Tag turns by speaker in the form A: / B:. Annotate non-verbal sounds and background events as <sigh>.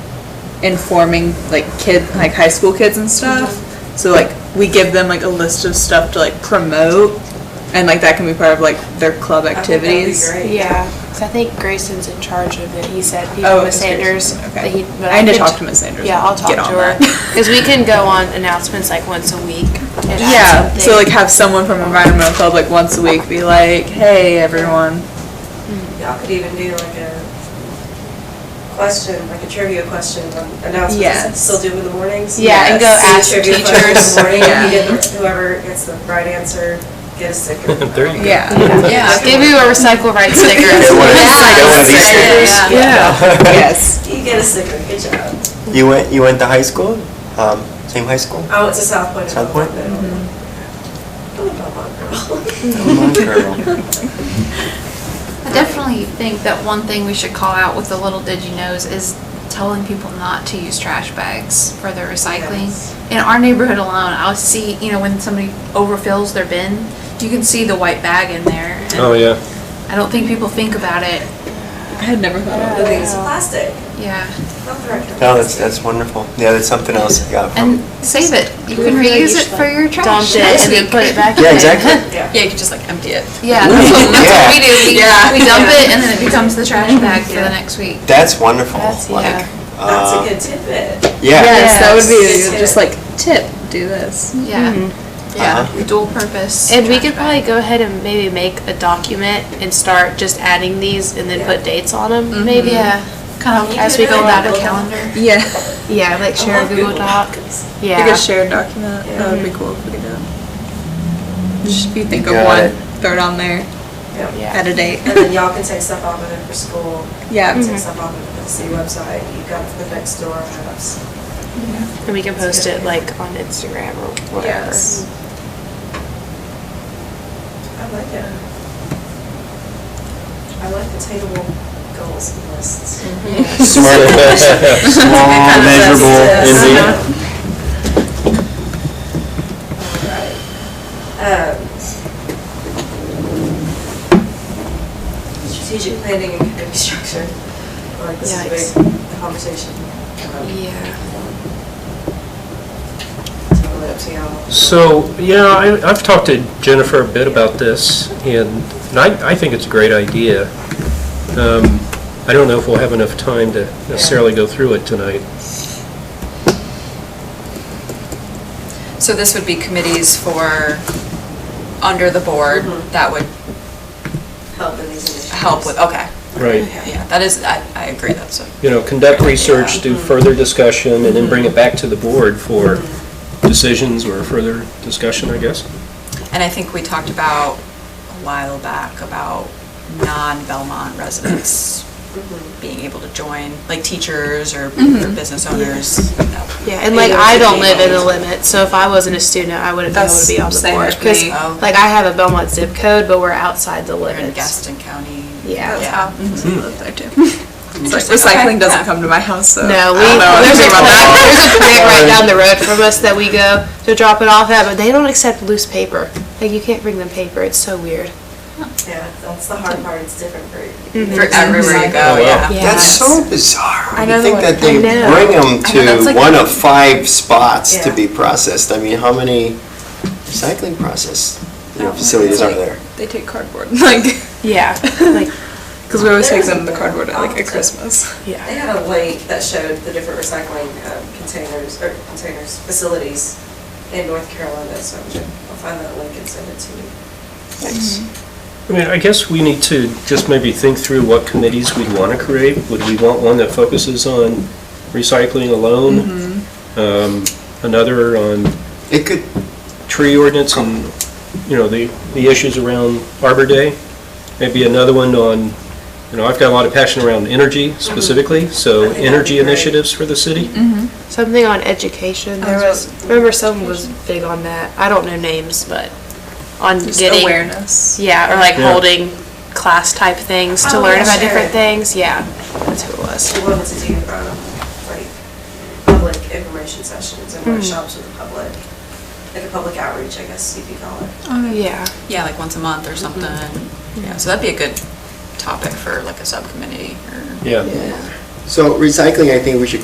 A: informing like kid, like high school kids and stuff. So like we give them like a list of stuff to like promote, and like that can be part of like their club
B: I think that would be
A: activities.
B: great.
C: Yeah, 'cause I think Grayson's in charge of it. He said he
A: Oh,
C: with
A: it's
C: Sanders.
A: Grayson,
C: that
A: okay.
C: he- but
A: I need to
C: could-
A: talk to Miss Sanders
C: Yeah,
A: and
C: I'll talk
A: get
C: to
A: on
C: her.
A: that.
C: Because we can go on announcements like once a week. and add
A: Yeah, so
C: something.
A: like have someone from environmental club like once a week be like, hey everyone,
B: Y'all could even do like a question, like a trivia question on announcements.
A: Yes.
B: Still do in the mornings?
C: Yeah, and go
B: See the
C: ask
B: trivia question
C: teachers.
B: In the morning,
A: Yeah.
B: you get the- whoever gets the right answer, get a sticker.
D: <laughs> There you go.
A: yeah,
C: Yeah, give you a recycle right sticker.
D: Get one of these-
C: Yeah.
D: get one of these stickers. <laughs>
A: yes.
B: You get a sticker, good job.
D: You went, you went to high school? Um, same high school?
B: I went to Oh, South Point.
D: South Point?
B: I'm
C: Mm-hmm. <laughs>
B: a Belmont girl. <laughs>
D: Come on, girl.
E: I definitely think that one thing we should call out with the little did you knows is telling people not to use trash bags for their recycling.
B: Yes.
E: In our neighborhood alone, I'll see, you know, when somebody overfills their bin, you can see the white bag in there. and
F: Oh, yeah.
E: I don't think people think about it,
A: I had never thought of
B: The thing is plastic,
E: yeah.
B: not the right kind of
D: No, Oh,
B: plastic.
D: that's, that's wonderful. Yeah, that's something else I got
E: And
D: from.
E: save it, you can reuse it for your trash.
C: Dumped it and then put it back in.
D: Yeah, exactly.
B: Yeah.
A: Yeah, you could just like empty it.
E: <laughs> Yeah, that's what, that's what we do, we,
A: Yeah.
E: we dump it and then it becomes the trash bag for the next week.
D: That's wonderful.
C: That's-
D: Like,
C: yeah.
B: That's a
D: uh,
B: good tidbit.
D: Yeah.
A: Yes, that would
B: Yes.
A: be just like tip, do this.
E: Yeah,
D: Uh-huh.
E: yeah, dual purpose.
C: Mm-hmm. And we
E: trash
C: could
E: bag.
C: probably go ahead and maybe make a document and start just adding these and then put dates on them, maybe.
E: Yeah, kind of
B: You
E: as
B: could
E: we go
B: do
E: about
B: like
E: a
B: a
E: calendar.
A: Yeah,
C: Yeah, like
B: I
C: share a
B: love
C: Google Doc.
B: Docs.
A: like a
C: Yeah.
A: shared document. That would be cool if we did. Just if you think of
D: Got
A: one,
D: it.
A: throw it on there
B: Yeah.
C: Yeah.
A: at a date.
B: And
C: <laughs>
B: then y'all can take stuff off of it for school.
A: Yeah. Mm-hmm.
C: Mm-hmm.
B: Take stuff off of the city website, you got the next door apps.
C: And we can post it like on Instagram or whatever.
A: Yes.
B: I like it. I like the table goals and lists.
D: Smart, small, measurable,
B: Yes.
D: indeed.
B: Alright. Um, Um, Strategic planning and community structure, I like this is a big conversation. Um,
C: Yeah.
B: Totally up to y'all.
F: So, yeah, I- I've talked to Jennifer a bit about this, and and I I think it's a great idea. Um, I don't know if we'll have enough time to necessarily go through it tonight.
G: So this would be committees for, under the board,
A: Mm-hmm.
G: that would
B: Help in these initiatives.
G: help with, okay.
F: Right.
G: Yeah, that is, I, I agree, that's a.
F: You know, conduct research, do further discussion, and then bring it back to the board for decisions or further discussion, I guess.
G: And I think we talked about a while back about non-Belmont residents
C: Mm-hmm.
G: being able to join, like teachers or or business owners.
C: Yeah, and like I don't live in the limit, so if I wasn't a student, I wouldn't be able to
A: That's
C: be on the
A: same
C: board.
A: with
C: Because
A: me.
G: Oh.
C: like I have a Belmont zip code, but we're outside the
G: Or in
C: limits.
G: Gaston County.
C: Yeah.
G: Yeah.
A: So
C: Mm-hmm.
A: we live
C: <laughs>
A: there too. It's like recycling doesn't come to my house, so.
C: No,
A: I
C: we,
A: don't know
C: there's
A: <laughs> anything
C: a
A: about
C: plant,
A: that.
C: there's a plant right down the road from us that we go to drop it off at, but they don't accept loose paper. Like you can't bring them paper, it's so weird.
B: Yeah, that's the hard part, it's different for
C: Mm-hmm.
G: For everywhere you
F: Oh, wow.
G: go, yeah.
C: Yeah.
D: That's so bizarre. I
A: know
D: think
A: the
D: that they
C: I know.
D: bring them
A: that's
D: to
A: like
D: one
A: a-
D: of five spots to
B: Yeah.
D: be processed. I mean, how many recycling process, you know, facilities are there?
A: They take cardboard, <laughs> like,
C: Yeah, like,
A: because we always take them the cardboard at like at Christmas.
B: They
C: yeah.
B: had a link that showed the different recycling um, containers, or containers, facilities in North Carolina, so I'm sure I'll find that link and send it to you.
D: Thanks.
F: I mean, I guess we need to just maybe think through what committees we'd want to create. Would we want one that focuses on recycling alone? Um, Another on
D: It could,
F: tree ordinance and, you know, the, the issues around Arbor Day. Maybe another one on, you know, I've got a lot of passion around energy specifically,
B: I
F: so
B: think that'd be
F: energy
B: great. Mm-hmm.
F: initiatives for the city.
C: Something on education, there was, remember someone was big on that, I don't know names, but on
A: Just
C: getting.
A: awareness.
C: Yeah, or like
F: Yeah.
C: holding class type things to
B: Oh,
C: learn
B: yeah,
C: about
B: sure.
C: different things, yeah, that's who it was.
B: We wanted to do, um, like, public information sessions and
C: Mm-hmm.
B: workshops with the public, like a public outreach, I guess you could call it.
C: Yeah,
G: Yeah, like once a month or something. Yeah, so that'd be a good topic for like a subcommittee or.
F: Yeah.
D: so recycling, I think we should